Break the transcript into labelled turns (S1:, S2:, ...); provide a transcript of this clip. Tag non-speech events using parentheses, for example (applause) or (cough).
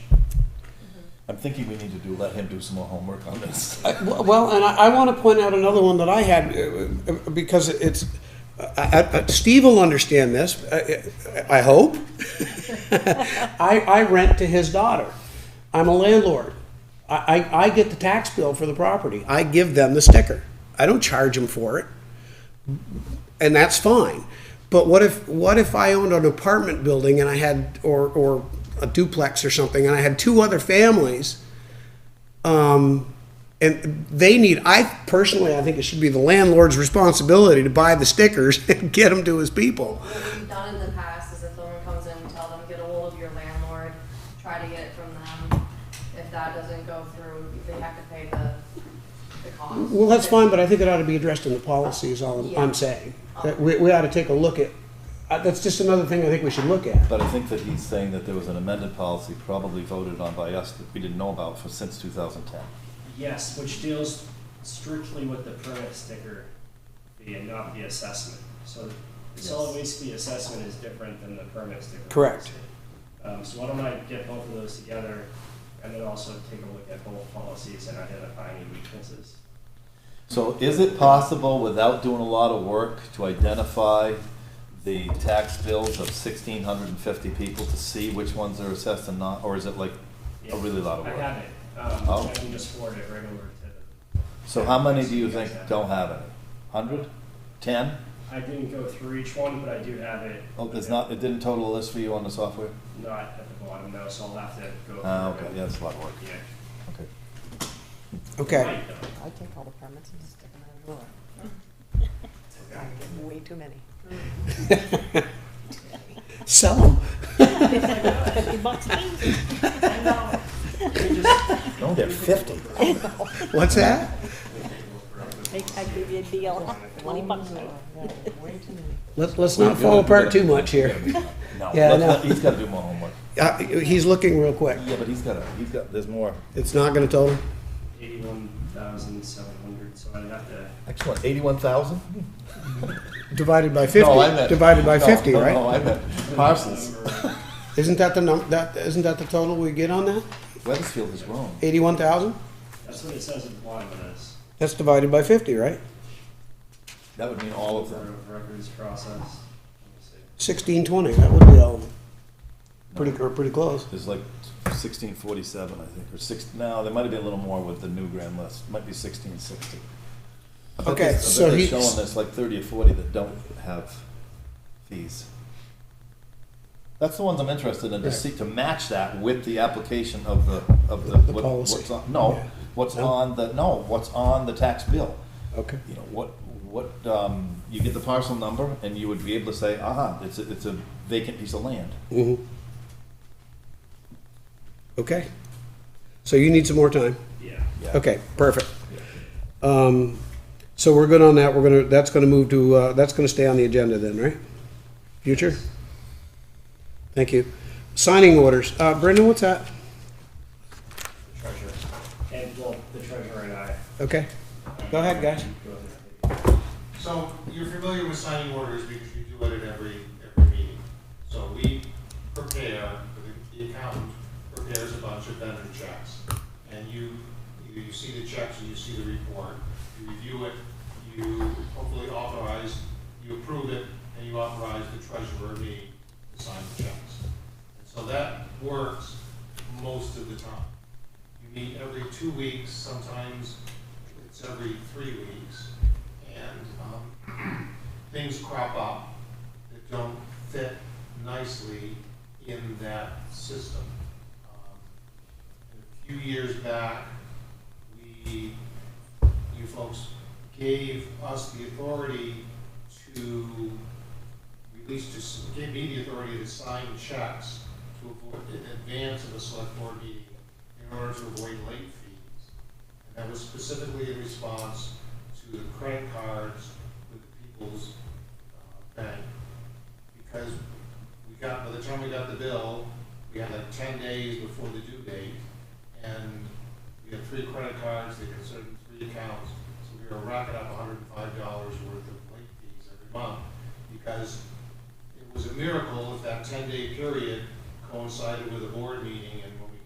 S1: I'm thinking we need to do, let him do some more homework on this. (laughs)
S2: I- Well, and I, I want to point out another one that I had, uh, uh, because it's, I- I- I- Steve will understand this, uh, I I hope. (laughs) I, I rent to his daughter. I'm a landlord. I, I, I get the tax bill for the property. I give them the sticker. I don't charge them for it. And that's fine. But what if, what if I owned an apartment building and I had, or, or a duplex or something, and I had two other families? um, And they need, I personally, I think it should be the landlord's responsibility to buy the stickers (laughs) and get them to his people.
S3: What we've done in the past is if someone comes in, we tell them, get a hold of your landlord, try to get it from them. If that doesn't go through, they have to pay the, the cost.
S2: Well, that's fine, but I think it ought to be addressed in the policy is all I'm saying. That we, we ought to take a look at, uh, that's just another thing I think we should look at.
S1: But I think that he's saying that there was an amended policy probably voted on by us that we didn't know about for, since two thousand ten.
S4: Yes, which deals strictly with the permit sticker fee and not the assessment. So the solid waste fee assessment is different than the permit sticker. fee.
S2: Correct.
S4: Um, so why don't I get both of those together and then also take a look at both policies and identify any weaknesses?
S1: So is it possible, without doing a lot of work, to identify the tax bills of sixteen hundred and fifty people to see which ones are assessed and not, or is it like a really lot of
S4: I
S1: work?
S4: have it. Um,
S1: Oh.
S4: I can just forward it right over to,
S1: So how many do you think don't have it? Hundred? Ten?
S4: I didn't go through each one, but I do have it.
S1: Oh, there's not, it didn't total a list for you on the software?
S4: Not at the bottom though, so I'll have to go. through
S1: Ah, okay,
S4: it.
S1: yeah, that's a lot of work,
S4: Yeah.
S1: okay.
S2: Okay.
S4: Right, though.
S5: I take all the permits and stick them in a drawer.
S6: (laughs)
S5: I get way too many.
S2: Sell them.
S5: (laughs)
S1: No, they're fifty.
S2: What's that?
S6: I give you a deal, twenty bucks.
S5: Way too many.
S2: Let's, let's not fall apart too much here.
S1: No,
S2: Yeah, I
S1: let's
S2: know.
S1: not- he's gotta do more homework.
S2: Uh, he's looking real quick.
S1: Yeah, but he's gotta, he's got, there's more.
S2: It's not gonna total?
S4: eighty-one thousand seven hundred, so I'd have to,
S1: Excellent, eighty-one thousand?
S2: Divided by fifty, divided by fifty,
S1: No,
S2: right?
S1: I meant parcels.
S2: Isn't that the num, that, isn't that the total we get on that?
S1: Weathersfield is wrong.
S2: Eighty-one thousand?
S4: that's what it says at the bottom of this,
S2: That's divided by fifty, right?
S1: That would mean all of
S4: for
S1: them.
S4: records process. Let me see.
S2: Sixteen twenty, that would be all, of them. pretty, or pretty close.
S1: There's like sixteen forty-seven, I think, or six, no, there might have been a little more with the new grand list, might be sixteen sixty. I bet
S2: Okay,
S1: there's-
S2: so
S1: I bet
S2: he's-
S1: they're showing there's like thirty or forty that don't have fees. That's the ones I'm interested in, to see, to match that with the application of the, of the.
S2: The
S1: what-
S2: policy.
S1: what's on- No,
S2: Yeah.
S1: what's
S2: No?
S1: on the, no, what's on the tax bill.
S2: Okay.
S1: you know, what, what, um, you get the parcel number and you would be able to say, aha, it's a, it's a vacant piece of land.
S2: Mm-hmm. Okay. So you need some more time.
S4: Yeah.
S1: Yeah.
S2: Okay, perfect. Um, so we're good on that. We're gonna, that's gonna move to, uh, that's gonna stay on the agenda then, right? Future? Thank you. Signing orders. Uh, Brendan, what's that?
S4: Treasurer, and, well, the treasurer and I.
S2: Okay. Go ahead, guys.
S4: go ahead.
S7: So you're familiar with signing orders because you do it at every, every meeting. So we prepare, the- the accountant prepares a bunch of vendor checks. And you, either you see the checks or you see the report, you review it, you hopefully authorize, you approve it, and you authorize the treasurer, me, to sign the checks. And so that works most of the time. You meet every two weeks, sometimes it's every three weeks. And um, things crop up that don't fit nicely in that system. Um, A few years back, we, you folks gave us the authority to release, to, s- gave me the authority to sign checks to avoid, in advance of a select board meeting in order to avoid late fees. And that was specifically in response to the credit cards with People's uh, Bank. Because we got, by the time we got the bill, we had like ten days before the due date. And we had three credit cards, they considered three accounts. So we were racking up hundred and five dollars worth of late fees every month. Because it was a miracle if that ten-day period coincided with a board meeting and